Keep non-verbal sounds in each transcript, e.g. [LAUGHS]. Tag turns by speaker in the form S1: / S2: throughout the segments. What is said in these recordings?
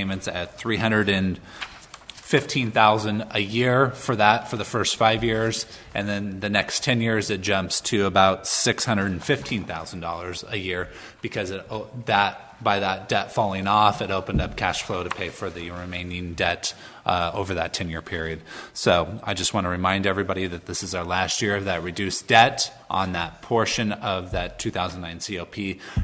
S1: payments at three hundred and fifteen thousand a year for that for the first five years, and then the next ten years it jumps to about six hundred and fifteen thousand dollars a year because it, oh, that by that debt falling off, it opened up cash flow to pay for the remaining debt uh, over that ten year period. So I just want to remind everybody that this is our last year of that reduced debt on that portion of that 2009 COP.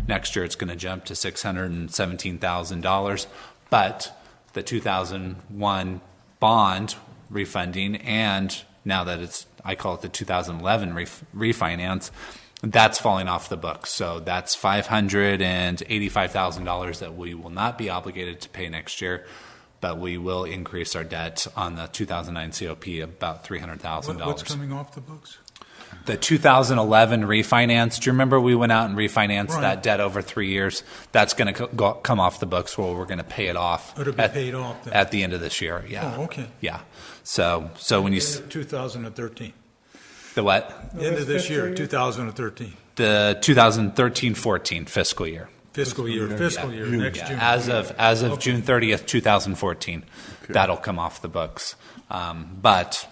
S1: Next year it's going to jump to six hundred and seventeen thousand dollars, but the 2001 bond refunding and now that it's i call it the 2011 ref- refinance that's falling off the books so that's $585000 that we will not be obligated to pay next year but we will increase our debt on the 2009 cop about $300000
S2: What- What's coming off the books?
S1: the 2011 refinance. Do you remember we went out and refinanced
S2: Right.
S1: that debt over three years? That's going to co- go, come off the books. Well, we're going to pay it off.
S2: It'll be
S1: at,
S2: paid off then.
S1: at the end of this year. Yeah.
S2: Oh, okay.
S1: Yeah. So, so when you s-
S2: 2013.
S1: the what
S2: The End of this year, 2013,
S1: the 2013-14 fiscal year.
S2: fiscal year, fiscal year, next
S1: Yeah,
S2: June.
S1: As of as of June 30th, 2014, that'll come off the books. Um, but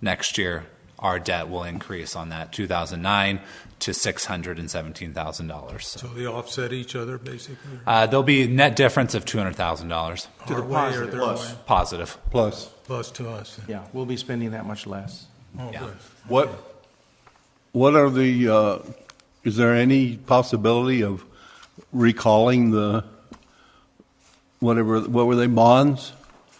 S1: next year, our debt will increase on that 2009 to six hundred and seventeen thousand dollars.
S2: So they offset each other, basically?
S1: Uh, there'll be a net difference of two hundred thousand dollars
S2: To the
S3: positive. Plus.
S1: positive.
S4: Plus,
S2: Plus to us.
S3: Yeah, we'll be spending that much less.
S2: Oh,
S1: Yeah.
S2: good.
S4: what, what are the, uh, is there any possibility of recalling the, whatever, what were they, bonds?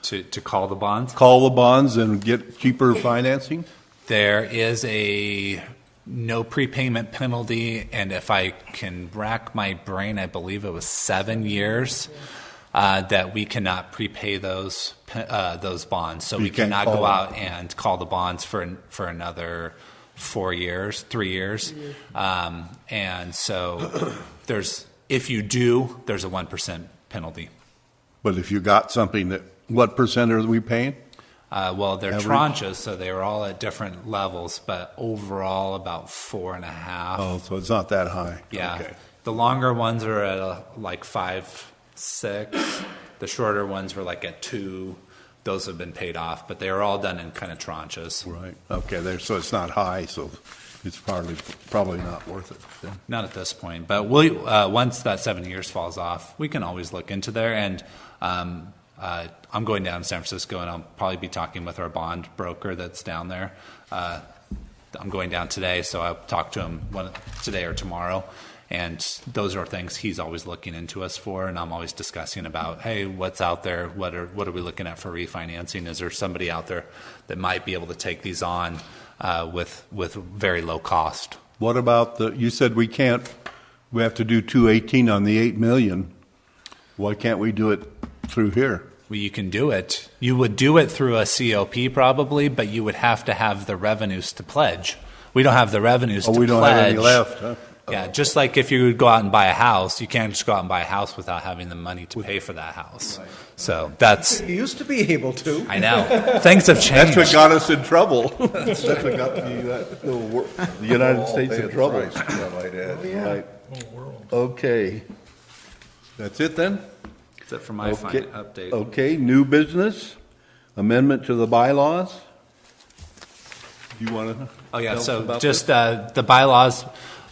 S1: To, to call the bonds,
S4: Call the bonds and get cheaper financing?
S1: there is a no prepayment penalty, and if I can rack my brain, I believe it was seven years uh, that we cannot prepay those pe- uh, those bonds. So
S4: You
S1: we
S4: can't
S1: cannot
S4: call
S1: go
S4: them.
S1: out and call the bonds for an- for another four years, three years, um, and so [COUGHS] there's if you do, there's a one percent penalty.
S4: But if you got something that, what percent are we paying?
S1: Uh, well, they're
S4: Average?
S1: tranches, so they were all at different levels, but overall about four and a half.
S4: Oh, so it's not that high.
S1: yeah.
S4: Okay.
S1: The longer ones are at uh, like five, six. the shorter ones were like at two. Those have been paid off, but they were all done in kind of tranches.
S4: Right, okay, there, so it's not high, so it's probably, probably not worth it then.
S1: Not at this point, but we'll, uh, once that seven years falls off, we can always look into there. And um, uh, I'm going down to San Francisco, and I'll probably be talking with our bond broker that's down there. Uh, I'm going down today, so I'll talk to him one, today or tomorrow. And those are things he's always looking into us for, and I'm always discussing about, hey, what's out there? What are what are we looking at for refinancing? Is there somebody out there that might be able to take these on uh, with with very low cost?
S4: What about the, you said we can't, we have to do 218 on the 8 million. Why can't we do it through here?
S1: Well, you can do it. You would do it through a COP probably, but you would have to have the revenues to pledge. We don't have the revenues
S4: Oh,
S1: to
S4: we don't have
S1: pledge.
S4: any left, huh?
S1: Yeah, just like if you would go out and buy a house, you can't just go out and buy a house without having the money to pay for that house. So that's,
S5: You used to be able to.
S1: I
S4: [LAUGHS]
S1: know. Things have changed.
S4: That's what got us
S1: [LAUGHS]
S4: in trouble. That's what got the, the wor- the United States in trouble.
S1: Oh,
S4: Right. Okay. That's it then?
S1: That's it for my fin-
S4: Okay-
S1: update.
S4: Okay, new business, amendment to the bylaws. You want to?
S1: Oh, yeah, so just, uh, the bylaws,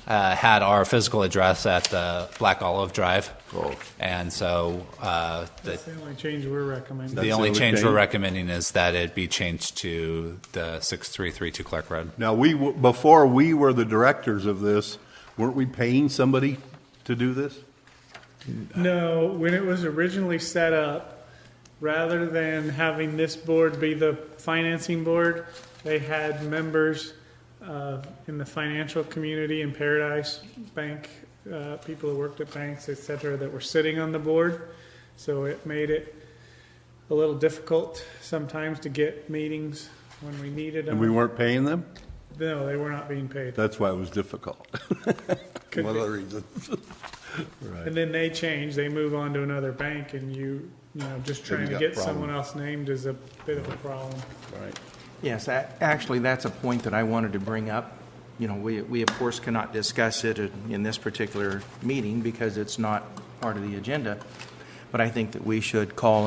S1: uh, had our physical address at the Black Olive Drive.
S4: Oh.
S1: And so, uh, the
S6: That's the only change we're recommending.
S1: The
S4: That's
S1: only
S4: the only
S1: change we're
S4: change.
S1: recommending is that it be changed to the 6332 Clark Road.
S4: Now, we, w- before we were the directors of this, weren't we paying somebody to do this?
S6: No, when it was originally set up, rather than having this board be the financing board, they had members uh, in the financial community in Paradise, bank, uh, people who worked at banks, et cetera, that were sitting on the board. So it made it a little difficult sometimes to get meetings when we needed
S4: And we
S6: them.
S4: weren't paying them?
S6: No, they were not being paid.
S4: That's why it was difficult. [LAUGHS]
S6: Could
S4: One
S6: be.
S4: of the reasons.
S6: And then they change, they move on to another bank and you, you know, just trying
S4: you
S6: to
S4: got
S6: get
S4: problems.
S6: someone else named is a bit of a problem.
S3: Yes, a- actually, that's a point that I wanted to bring up. You know, we, we of course cannot discuss it in in this particular meeting because it's not part of the agenda. But I think that we should call